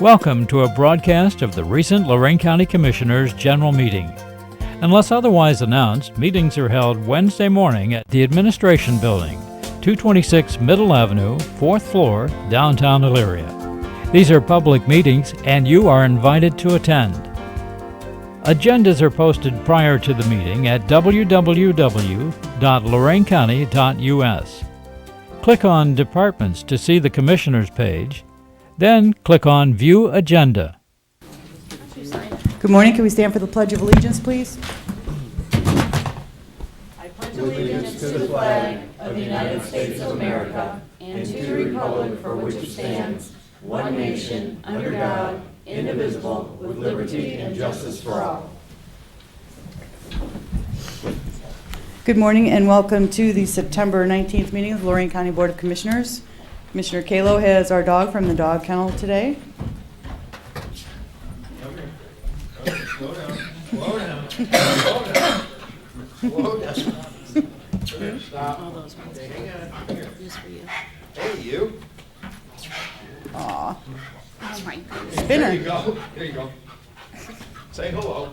Welcome to a broadcast of the recent Lorraine County Commissioners' General Meeting. Unless otherwise announced, meetings are held Wednesday morning at the Administration Building, 226 Middle Avenue, 4th floor, downtown Elyria. These are public meetings and you are invited to attend. Agendas are posted prior to the meeting at www.loraincounty.us. Click on Departments to see the Commissioners page, then click on View Agenda. Good morning, can we stand for the Pledge of Allegiance, please? Good morning and welcome to the September 19th meeting of the Lorraine County Board of Commissioners. Commissioner Kalo has our dog from the dog kennel today. Slow down, slow down, slow down, slow down. Stop. Hang on. Here. Hey, you. Aw, There you Spinner. go, there you go. Say hello.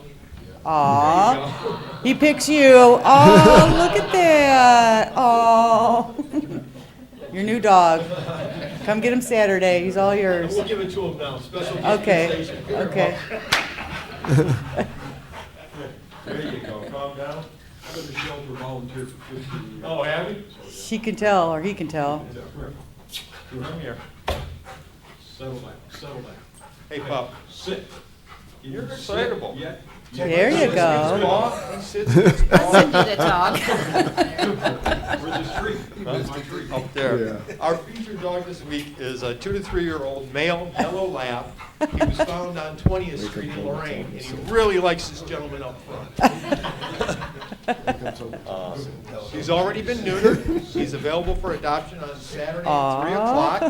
Aw, he picks you. Oh, look at that. Oh. Your new dog. Come get him Saturday, he's all yours. We'll give it to him now, special Okay, dispensation. Here, okay. There you go, calm down. I've been a shelter volunteer for 15 years. Oh, Abby? She can tell, or he can tell. Come here. Settle down, settle down. Hey, pup. Sit. You're excitable. Yeah. There you go. Paw, he sits with his paw send you the dog. Where's the tree? Where's my tree? up there. Our featured dog this week is a two to three-year-old male yellow lab. He was found on 20th Street in Lorraine, and he really likes this gentleman up front. He's already been neutered. He's available for adoption on Saturday at 3 o'clock.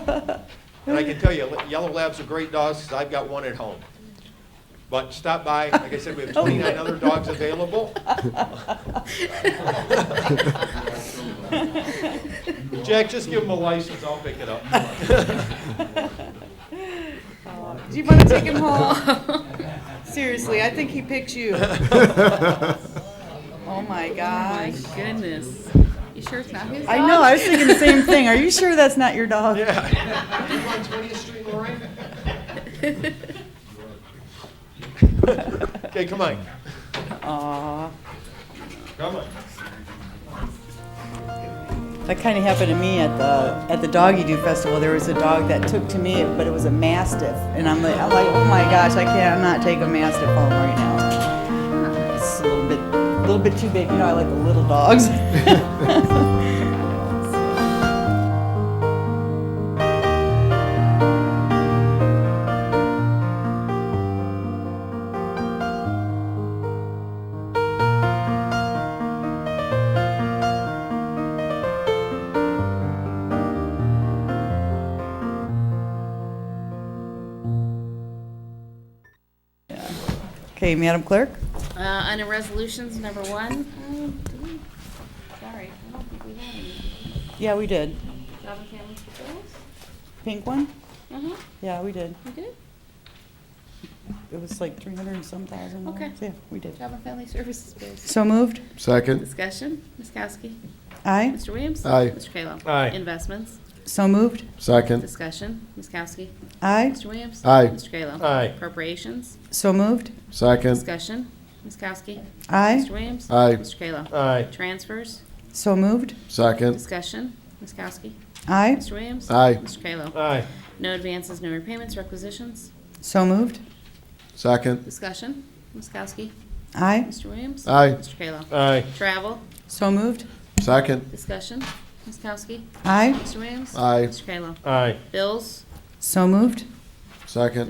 And I can tell you, yellow labs are great dogs, 'cause I've got one at home. But stop by, like I said, we have 29 other dogs available. Jack, just give him a license, I'll pick it up. Do you want to take him home? Seriously, I think he picked you. Oh my My gosh. goodness. You sure it's not his dog? I know, I was thinking the same thing. Are you sure that's not your dog? Yeah. You on 20th Street, Lorraine? Okay, come on. Aw, Come on. that kind of happened to me at the, at the Doggy Doo Festival. There was a dog that took to me, but it was a Mastiff. And I'm like, I'm like, oh my gosh, I cannot take a Mastiff home right now. It's a little bit, a little bit too big. You know, I like the little dogs. Okay, Madam Clerk? Uh, under resolutions, number one. uh, do we- Sorry, I don't think we had any. Yeah, we did. Job and family fulfillment? Pink one? Uh-huh, Yeah, we did. we did. It was like 300 and some thousand. dollars. Okay. Yeah, we did. Job and family services bills. So moved? Second, Discussion, Ms. Kowski. Aye. Mr. Williams. Aye. Mr. Kayla. Aye. Investments, So moved? second, discussion, Ms. Kowski. Aye. Mr. Williams. Aye. Mr. Kayla. Aye. Appropriations, So moved? second, discussion, Ms. Kowski. Aye. Mr. Williams. Aye. Mr. Kayla. Aye. Transfers, So moved? second, discussion, Ms. Kowski. Aye. Mr. Williams. Aye. Mr. Kayla. Aye. No advances, no repayments, requisitions. So moved? second, Discussion. Ms. Kowski. Aye. Mr. Williams. Aye. Mr. Kayla. Aye. Travel. So moved? second, Discussion. Ms. Kowski. Aye. Mr. Williams. Aye. Mr. Kayla. Aye. Bills. So moved? second.